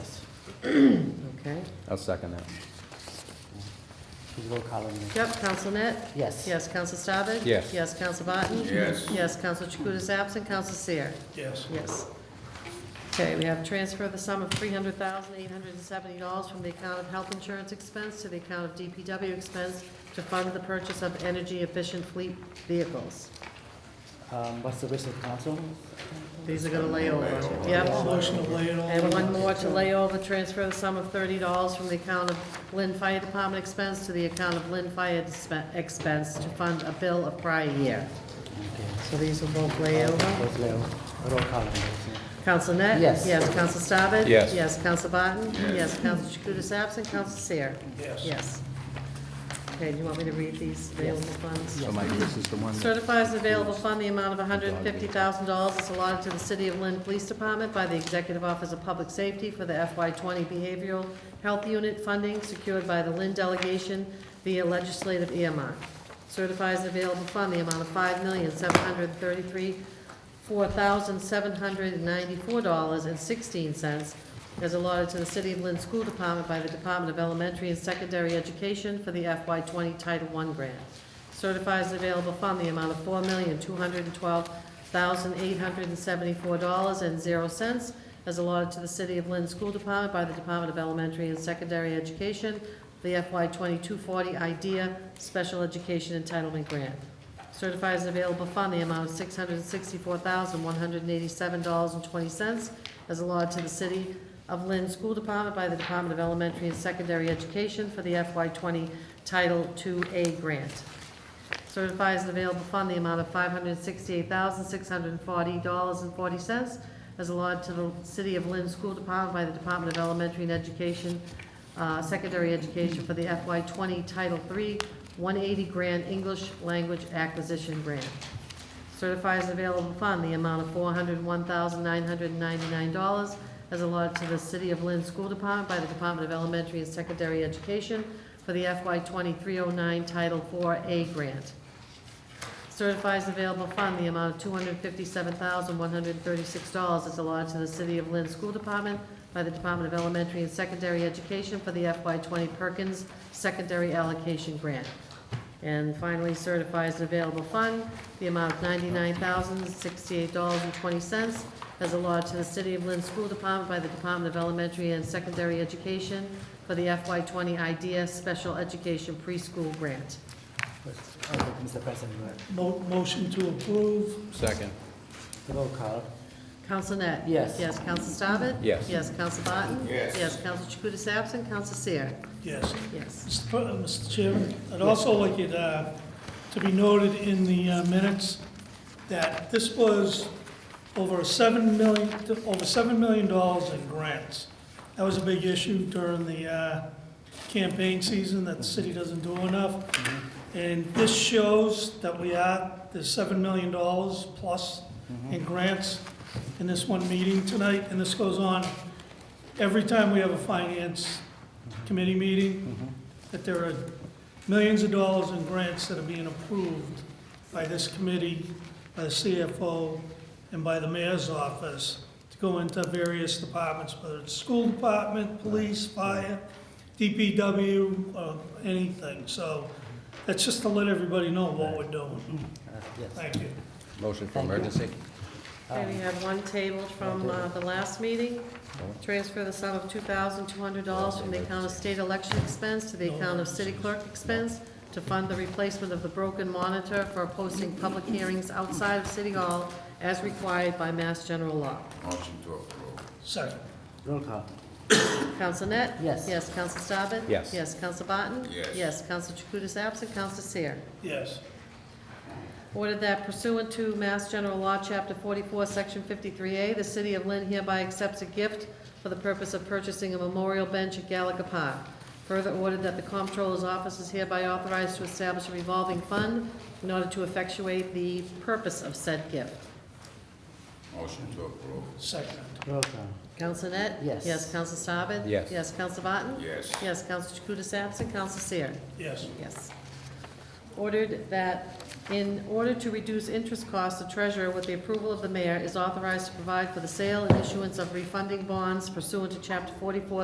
Okay. I'll second that. Please roll call on this. Yep, Council Net? Yes. Yes, Council Staben? Yes. Yes, Council Barton? Yes. Yes, Council Chakutis is absent, Council Seer? Yes. Yes. Okay, we have transfer the sum of three hundred thousand, eight hundred and seventy dollars from the account of health insurance expense to the account of DPW expense to fund the purchase of energy-efficient fleet vehicles. Um, What's the wish of council? These are gonna lay over. Yep. Motion to lay it all. And one more to lay over, transfer the sum of thirty dollars from the account of Lynn Fire Department expense to the account of Lynn Fire dispe- expense to fund a bill of prior year. Okay. So these will both lay over. Let's roll roll call on this. Counsel Net? Yes. Yes, Counsel Staben? Yes. Yes, Counsel Barton? Yes. Council Counsel Chakutis absent, Counsel Seer? Yes. Yes. Okay, do you want me to read these available funds? So Mike, this is the one, that- Certifies an available fund, the amount of $150,000 is allotted to the City of Lynn Police Department by the Executive Office of Public Safety for the FY20 Behavioral Health Unit funding secured by the Lynn delegation via legislative earmark. Certifies an available fund, the amount of $5,733,794.16 is allotted to the City of Lynn School Department by the Department of Elementary and Secondary Education for the FY20 Title I grant certifies the available fund the amount of four million, two hundred and twelve thousand, eight hundred and seventy-four dollars and zero cents as allotted to the City of Lynn School Department by the Department of Elementary and Secondary Education, the FY twenty-two forty IDEA Special Education Entitlement Grant. Certifies the available fund the amount of six hundred and sixty-four thousand, one hundred and eighty-seven dollars and twenty cents as allotted to the City of Lynn School Department by the Department of Elementary and Secondary Education for the FY twenty Title II A grant. Certifies an available fund the amount of $568,640.40 as allotted to the City of Lynn School Department by the Department of Elementary and Education, uh, Secondary Education for the FY20 Title III 180 Grant English Language Acquisition Grant. Certifies an available fund the amount of $401,999 as allotted to the City of Lynn School Department by the Department of Elementary and Secondary Education for the FY 2309 Title 4A grant. Certifies available fund, the amount of $257,136 is allotted to the City of Lynn School Department by the Department of Elementary and Secondary Education for the FY 20 Perkins Secondary Allocation Grant. And finally, certifies an available fund, the amount of $99,068.20 as allotted to the City of Lynn School Department by the Department of Elementary and Secondary Education for the FY20 IDEA Special Education Preschool Grant. Let's- okay, Mr. President, Mo- Motion to approve. second, roll call. Counsel Net? Yes. Yes, Counsel Staben? Yes. Yes, Counsel Barton? Yes. Yes, Counsel Chakutis absent, Counsel Seer? Yes. Yes. Mr. Pre- uh, Mr. Chairman, I'd also like it uh, to be noted in the uh, minutes that this was over seven million, over seven million dollars in grants. That was a big issue during the uh, campaign season, that the city doesn't do enough. And this shows that we are, there's seven million dollars plus in grants in this one meeting tonight, and this goes on every time we have a finance committee meeting, that there are millions of dollars in grants that are being approved by this committee, by the CFO, and by the mayor's office to go into various departments, whether it's school department, police, fire, DPW, or uh, anything. So that's just to let everybody know what we're doing. Uh, Yes. Thank you. motion for Thank you. emergency. Okay, we have one tabled from uh, the last meeting. Transfer the sum of two thousand two hundred dollars from the account of state election expense to the account of city clerk expense to fund the replacement of the broken monitor for posting public hearings outside of City Hall as required by Mass General Law. Second. Roll call. Counsel Net? Yes. Yes, Counsel Staben? Yes. Yes, Counsel Barton? Yes. Yes, Counsel Chakutis absent, Counsel Seer? Yes. Ordered that pursuant to Mass General Law, Chapter 44, Section 53A, the City of Lynn hereby accepts a gift for the purpose of purchasing a memorial bench at Gallagher Park. Further ordered that the Comptroller's Office is hereby authorized to establish a revolving fund in order to effectuate the purpose of said gift. Motion to approve. Second. Roll call. Counsel Net? Yes. Yes, Counsel Staben? Yes. Yes, Counsel Barton? Yes. Yes, Counsel Chakutis absent, Counsel Seer? Yes. Yes. Ordered that in order to reduce interest costs, the treasurer, with the approval of the mayor, is authorized to provide for the sale and issuance of refunding bonds pursuant to Chapter 44,